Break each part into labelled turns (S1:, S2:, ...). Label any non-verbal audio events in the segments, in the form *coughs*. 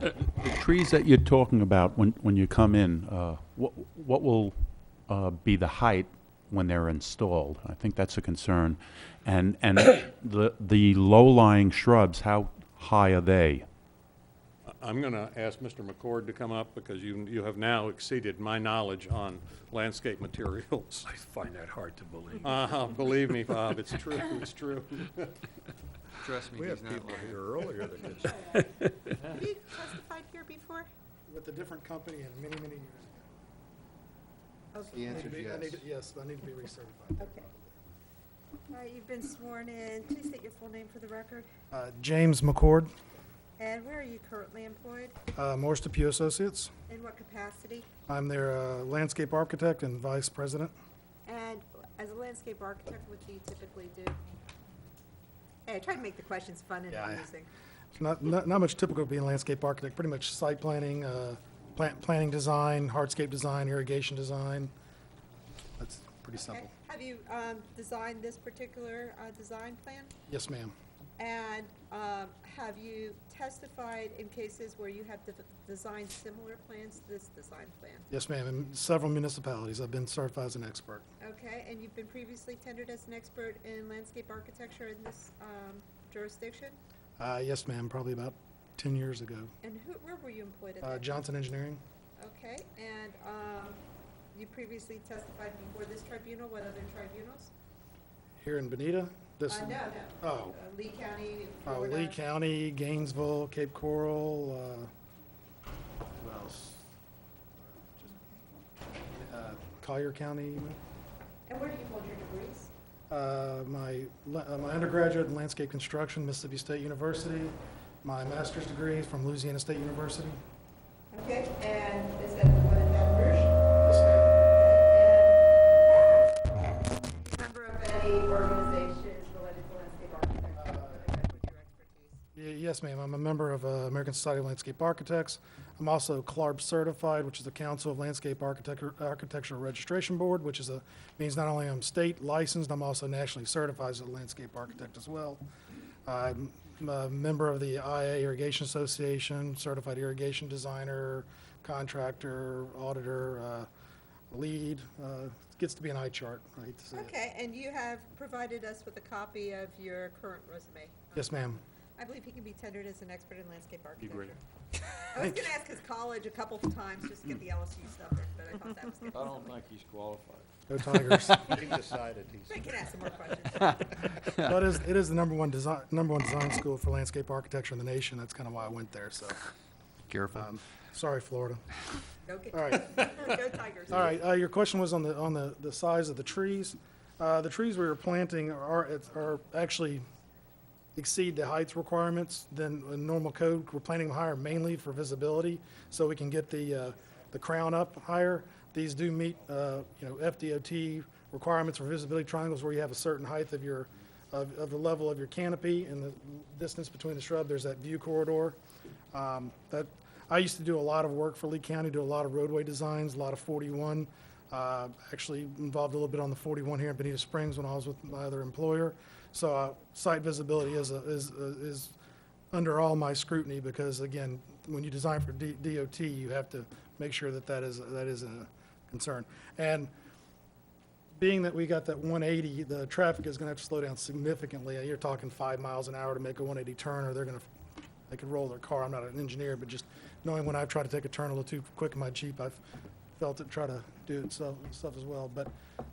S1: The trees that you're talking about when, when you come in, uh, what, what will uh, be the height when they're installed? I think that's a concern. And, and *coughs* the, the low-lying shrubs, how high are they?
S2: I'm going to ask Mr. McCord to come up because you, you have now exceeded my knowledge on landscape materials.
S3: I find that hard to believe.
S2: Uh, Believe me, Bob, it's true, it's true.
S4: Trust me,
S3: We
S4: he's
S3: had
S4: not
S3: people
S4: lying.
S3: here earlier that could say,
S5: Have you testified here before?
S6: with a different company and many, many years
S4: The
S5: Okay.
S6: ago. I
S4: answer
S6: need to be- I
S4: is
S6: need to- Yes, I need to be recertified.
S5: Okay. All right, you've been sworn in. Please state your full name for the record.
S6: Uh, James McCord,
S5: And where are you currently employed?
S6: uh, Morris DePew Associates.
S5: In what capacity?
S6: I'm their uh, landscape architect and vice president.
S5: And as a landscape architect, what do you typically do? Hey, I tried to make the questions fun and
S6: Yeah, I- *laughs*
S5: amusing.
S6: Not, not not much typical of being a landscape architect, pretty much site planning, uh, plant, planning design, hardscape design, irrigation design. That's pretty
S5: Okay.
S6: simple.
S5: Have you um, designed this particular uh, design plan?
S6: Yes, ma'am.
S5: And um, have you testified in cases where you have de- designed similar plans to this design plan?
S6: Yes, ma'am. In several municipalities, I've been certified as an expert.
S5: Okay, and you've been previously tendered as an expert in landscape architecture in this um, jurisdiction?
S6: Uh, Yes, ma'am, probably about 10 years ago.
S5: And who, where were you employed at
S6: Uh,
S5: that?
S6: Johnson Engineering,
S5: Okay, and um, you previously testified before this tribunal, what other tribunals?
S6: here in Benita. This-
S5: Uh, No, no.
S6: Oh.
S5: Uh, Lee County,
S6: Uh,
S5: Florida.
S6: Lee County, Gainesville, Cape Coral, uh, what else? Uh, Collier County.
S5: And where do you hold your degrees?
S6: Uh, My la- uh, my undergraduate in landscape construction, Mississippi State University. My master's degree is from Louisiana State University.
S5: Okay, and is that the one in Baton Rouge? And Member of any organization related to landscape architecture, that's with your expertise.
S6: Y- Yes, ma'am. I'm a member of uh, American Society of Landscape Architects. I'm also CLARB certified, which is the Council of Landscape Architecture Architectural Registration Board, which is a, means not only I'm state licensed, I'm also nationally certified as a landscape architect as well. I'm a member of the IA Irrigation Association, certified irrigation designer, contractor, auditor, uh, lead. Uh, Gets to be an eye chart, I hate to say it.
S5: Okay, and you have provided us with a copy of your current resume. Um,
S6: Yes, ma'am.
S5: I believe he can be tendered as an expert in landscape architecture.
S6: *laughs*
S2: great.
S5: I was gonna ask his college a couple of times, just to get the LSU stuff, but I thought that was good.
S4: *laughs* I don't think he's qualified.
S6: Go Tigers.
S3: he decided he's.
S5: I can ask some more questions.
S6: *laughs* But it is, it is the number one design, number one design school for landscape architecture in the nation. That's kind of why I went there, so.
S4: Careful.
S6: um, Sorry, Florida.
S5: Go get-
S6: All
S5: *laughs*
S6: right.
S5: Go Tigers.
S6: All right, uh, your question was on the, on the, the size of the trees. Uh, the trees we were planting are, it's- are actually exceed the heights requirements than a normal code. We're planting them higher mainly for visibility, so we can get the, uh, the crown up higher. These do meet, uh, you know, FDOT requirements for visibility triangles where you have a certain height of your, of, of the level of your canopy and the distance between the shrub, there's that view corridor. Um, That, I used to do a lot of work for Lee County, do a lot of roadway designs, a lot of 41. uh, Actually involved a little bit on the 41 here in Benita Springs when I was with my other employer. So uh, site visibility is, a- is, uh, is under all my scrutiny because again, when you design for D- DOT, you have to make sure that that is, that is a concern. And being that we got that 180, the traffic is going to have to slow down significantly. You're talking five miles an hour to make a 180 turn, or they're going to, they could roll their car. I'm not an engineer, but just knowing when I've tried to take a turn a little too quick in my Jeep, I've felt it try to do it so- stuff as well. But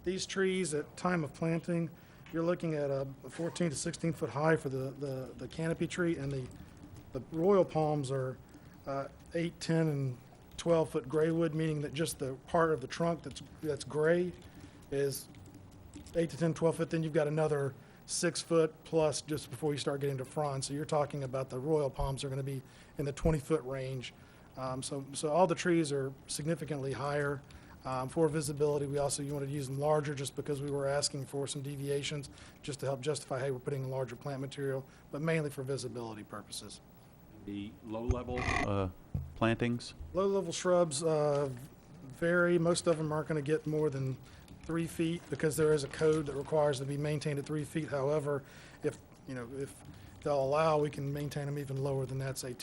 S6: these trees, at time of planting, you're looking at a 14 to 16 foot high for the, the the canopy tree, and the, the royal palms are uh, 8, 10, and 12 foot gray wood, meaning that just the part of the trunk that's, that's gray is eight to 10, 12 foot, then you've got another six foot plus just before you start getting to fronds. So you're talking about the royal palms are going to be in the 20 foot range. Um, So, so all the trees are significantly higher um, for visibility. We also, you wanted to use them larger just because we were asking for some deviations, just to help justify, hey, we're putting in larger plant material, but mainly for visibility purposes.
S1: The low-level uh, plantings?
S6: Low-level shrubs uh, vary. Most of them aren't going to get more than three feet because there is a code that requires to be maintained at three feet. However, if, you know, if they'll allow, we can maintain them even lower than that, say